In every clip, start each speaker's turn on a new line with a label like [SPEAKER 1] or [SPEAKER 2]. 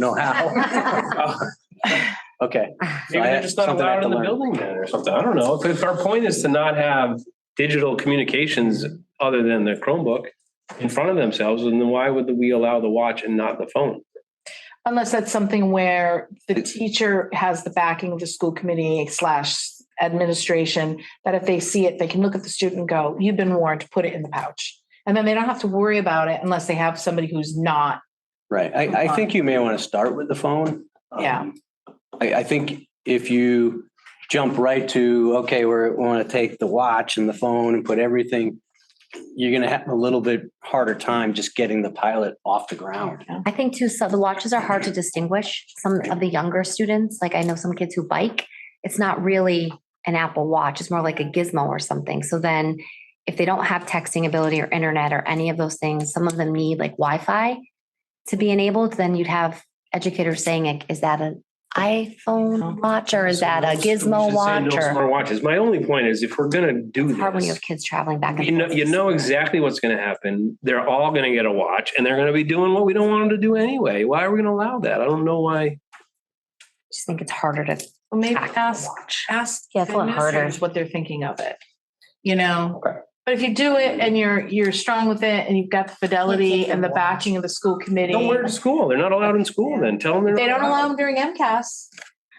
[SPEAKER 1] know how. Okay. So
[SPEAKER 2] Maybe
[SPEAKER 1] I
[SPEAKER 2] they're
[SPEAKER 1] have
[SPEAKER 2] just not
[SPEAKER 1] something I have
[SPEAKER 2] allowed in
[SPEAKER 1] to
[SPEAKER 2] the
[SPEAKER 1] learn.
[SPEAKER 2] building then or something. I don't know. Because our point is to not have digital communications other than the Chromebook in front of themselves. And then why would we allow the watch and not the phone?
[SPEAKER 3] Unless that's something where the teacher has the backing of the school committee slash administration, that if they see it, they can look at the student and go, you've been warned, put it in the pouch. And then they don't have to worry about it unless they have somebody who's not.
[SPEAKER 1] Right. I, I think you may want to start with the phone.
[SPEAKER 3] Yeah.
[SPEAKER 1] Um, I, I think if you jump right to, okay, we're, we want to take the watch and the phone and put everything, you're going to have a little bit harder time just getting the pilot off the ground.
[SPEAKER 4] I think too, so the watches are hard to distinguish. Some of the younger students, like I know some kids who bike, it's not really an Apple Watch. It's more like a gizmo or something. So then if they don't have texting ability or internet or any of those things, some of them need like Wi-Fi to be enabled, then you'd have educators saying, like, is that an iPhone watch or is that a
[SPEAKER 2] Uh-huh. We
[SPEAKER 4] gizmo
[SPEAKER 2] should say
[SPEAKER 4] watch?
[SPEAKER 2] No
[SPEAKER 4] Or
[SPEAKER 2] smart watches. My only point is if we're going to do
[SPEAKER 4] it's hard when you
[SPEAKER 2] this,
[SPEAKER 4] have kids traveling back and
[SPEAKER 2] you know,
[SPEAKER 4] forth.
[SPEAKER 2] you know exactly what's going to happen. They're all going to get a watch and they're going to be doing what we don't want them to do anyway. Why are we going to allow that? I don't know why.
[SPEAKER 4] Just think it's harder to
[SPEAKER 3] Well, maybe
[SPEAKER 4] track
[SPEAKER 3] ask
[SPEAKER 4] the watch.
[SPEAKER 3] ask
[SPEAKER 4] Yeah, it's a
[SPEAKER 3] the
[SPEAKER 4] lot harder.
[SPEAKER 3] administrators what they're thinking of it, you know?
[SPEAKER 1] Okay.
[SPEAKER 3] But if you do it and you're, you're strong with it and you've got the fidelity and the backing of the school committee.
[SPEAKER 2] Don't wear it to school. They're not allowed in school then. Tell them they're
[SPEAKER 3] They
[SPEAKER 2] not
[SPEAKER 3] don't
[SPEAKER 2] allowed.
[SPEAKER 3] allow them during MCAS,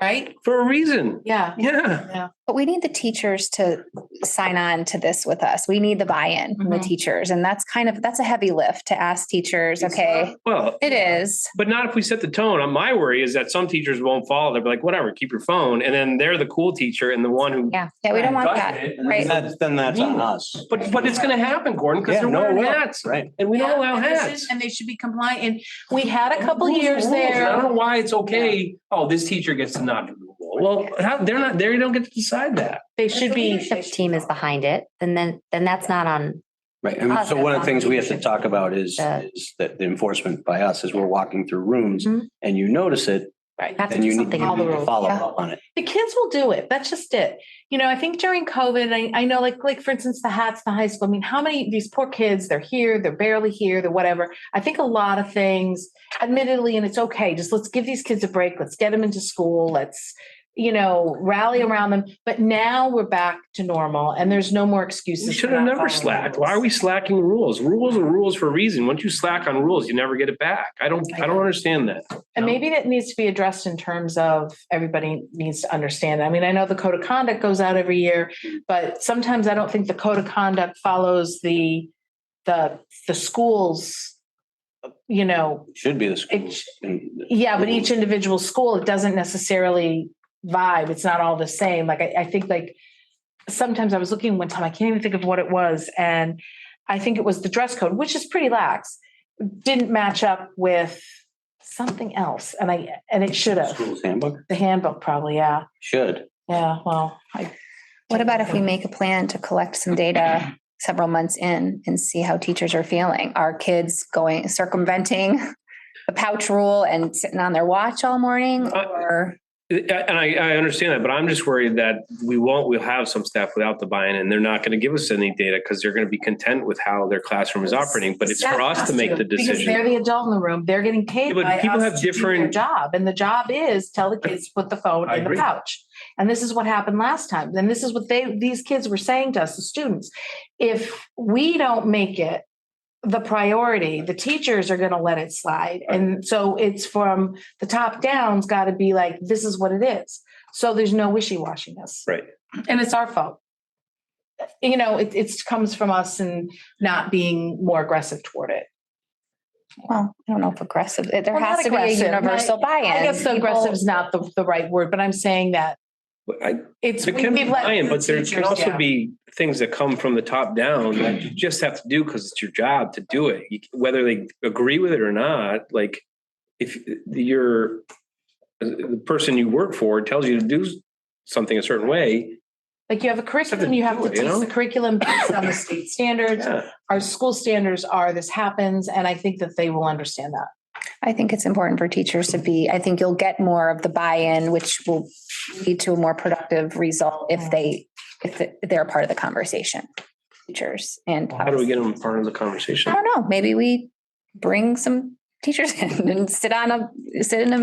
[SPEAKER 3] right?
[SPEAKER 2] For a reason.
[SPEAKER 3] Yeah.
[SPEAKER 2] Yeah.
[SPEAKER 5] But we need the teachers to sign on to this with us. We need the buy-in from the
[SPEAKER 3] Mhm.
[SPEAKER 5] teachers. And that's kind of, that's a heavy lift to ask teachers, okay,
[SPEAKER 2] Well,
[SPEAKER 5] it is.
[SPEAKER 2] But not if we set the tone. Uh, My worry is that some teachers won't follow. They'll be like, whatever, keep your phone. And then they're the cool teacher and the one who.
[SPEAKER 4] Yeah.
[SPEAKER 5] Yeah, we don't want
[SPEAKER 2] does
[SPEAKER 5] that.
[SPEAKER 2] it.
[SPEAKER 5] Right.
[SPEAKER 1] And that's, then that's on us.
[SPEAKER 2] But, but it's going to happen, Gordon, because
[SPEAKER 1] Yeah,
[SPEAKER 2] they're
[SPEAKER 1] no, it
[SPEAKER 2] wearing
[SPEAKER 1] will.
[SPEAKER 2] hats
[SPEAKER 1] Right.
[SPEAKER 2] and we don't
[SPEAKER 3] Yeah,
[SPEAKER 2] allow
[SPEAKER 3] and this
[SPEAKER 2] hats.
[SPEAKER 3] is- And they should be compliant. And we had a couple
[SPEAKER 2] Rules are
[SPEAKER 3] years
[SPEAKER 2] rules, and I
[SPEAKER 3] there.
[SPEAKER 2] don't know why it's okay. Oh, this teacher gets to not do the rule. Well, how, they're not, they don't get to decide that.
[SPEAKER 3] They should be.
[SPEAKER 4] leadership team is behind it, then then then that's not on
[SPEAKER 1] Right. And so one of the things we have to talk about is,
[SPEAKER 4] Yeah.
[SPEAKER 1] is that the enforcement by us as we're walking through rooms
[SPEAKER 4] Mhm.
[SPEAKER 1] and you notice it,
[SPEAKER 3] Right.
[SPEAKER 4] Have to
[SPEAKER 1] then
[SPEAKER 4] do
[SPEAKER 1] you need you
[SPEAKER 4] something.
[SPEAKER 3] All the
[SPEAKER 1] need to
[SPEAKER 3] rules.
[SPEAKER 1] follow
[SPEAKER 5] Yeah.
[SPEAKER 1] up on it.
[SPEAKER 3] The kids will do it. That's just it. You know, I think during COVID, I, I know like, like for instance, the hats, the high school, I mean, how many, these poor kids, they're here, they're barely here, they're whatever. I think a lot of things, admittedly, and it's okay, just let's give these kids a break. Let's get them into school. Let's, you know, rally around them. But now we're back to normal and there's no more excuses.
[SPEAKER 2] We
[SPEAKER 3] for
[SPEAKER 2] should have
[SPEAKER 3] not
[SPEAKER 2] never
[SPEAKER 3] following
[SPEAKER 2] slacked.
[SPEAKER 3] rules.
[SPEAKER 2] Why are we slacking rules? Rules are rules for a reason. Once you slack on rules, you never get it back. I don't, I don't understand that.
[SPEAKER 3] And
[SPEAKER 2] No.
[SPEAKER 3] maybe that needs to be addressed in terms of everybody needs to understand. I mean, I know the code of conduct goes out every year, but sometimes I don't think the code of conduct follows the, the, the schools. You know,
[SPEAKER 1] Should be the schools. And-
[SPEAKER 3] yeah, but each individual school, it doesn't necessarily vibe. It's not all the same. Like I, I think like sometimes I was looking one time, I can't even think of what it was. And I think it was the dress code, which is pretty lax, didn't match up with something else. And I and it should have.
[SPEAKER 1] School's handbook?
[SPEAKER 3] The handbook probably, yeah.
[SPEAKER 1] Should.
[SPEAKER 3] Yeah. Well, I
[SPEAKER 5] What about if we make a plan to collect some data several months in and see how teachers are feeling? Are kids going circumventing the pouch rule and sitting on their watch all morning
[SPEAKER 2] Uh,
[SPEAKER 5] or?
[SPEAKER 2] And I, I understand that, but I'm just worried that we won't, we'll have some staff without the buy-in and they're not going to give us any data because they're going to be content with how their classroom is operating, but it's for us to make the
[SPEAKER 3] Because they're
[SPEAKER 2] decision.
[SPEAKER 3] the adult in the room. They're getting paid
[SPEAKER 2] Yeah, but
[SPEAKER 3] by
[SPEAKER 2] people
[SPEAKER 3] us
[SPEAKER 2] have
[SPEAKER 3] to do their
[SPEAKER 2] different-
[SPEAKER 3] job. And the job is tell the kids to put the phone
[SPEAKER 2] I
[SPEAKER 3] in the
[SPEAKER 2] agree.
[SPEAKER 3] pouch. And this is what happened last time. And this is what they, these kids were saying to us, the students. If we don't make it the priority, the teachers are going to let it slide. And so it's from the top down's got to be like, this is what it is. So there's no wishy-washiness.
[SPEAKER 2] Right.
[SPEAKER 3] And it's our fault. You know, it, it's comes from us and not being more aggressive toward it.
[SPEAKER 5] Well, I don't know if aggressive, there
[SPEAKER 3] Well, not
[SPEAKER 5] has to be a
[SPEAKER 3] aggressive.
[SPEAKER 5] universal buy-in.
[SPEAKER 3] I guess so
[SPEAKER 5] People-
[SPEAKER 3] aggressive is not the, the right word, but I'm saying that
[SPEAKER 2] But I-
[SPEAKER 3] it's.
[SPEAKER 2] There can
[SPEAKER 3] we've
[SPEAKER 2] be
[SPEAKER 3] let
[SPEAKER 2] buy-in,
[SPEAKER 3] the
[SPEAKER 2] but there can
[SPEAKER 3] teachers
[SPEAKER 2] also
[SPEAKER 3] down.
[SPEAKER 2] be things that come from the top down that you just have to do because it's your job to do it. You- Whether they agree with it or not, like if you're, the person you work for tells you to do something a certain way,
[SPEAKER 3] Like you have a curriculum, you have
[SPEAKER 2] do
[SPEAKER 3] to
[SPEAKER 2] it, you
[SPEAKER 3] teach the
[SPEAKER 2] know?
[SPEAKER 3] curriculum based on the state standards.
[SPEAKER 2] yeah,
[SPEAKER 3] Our school standards are this happens, and I think that they will understand that.
[SPEAKER 5] I think it's important for teachers to be, I think you'll get more of the buy-in, which will lead to a more productive result if they, if they're part of the conversation. Teachers and.
[SPEAKER 2] how do we get them part of the conversation?
[SPEAKER 5] I don't know, maybe we bring some teachers and sit on a, sit in a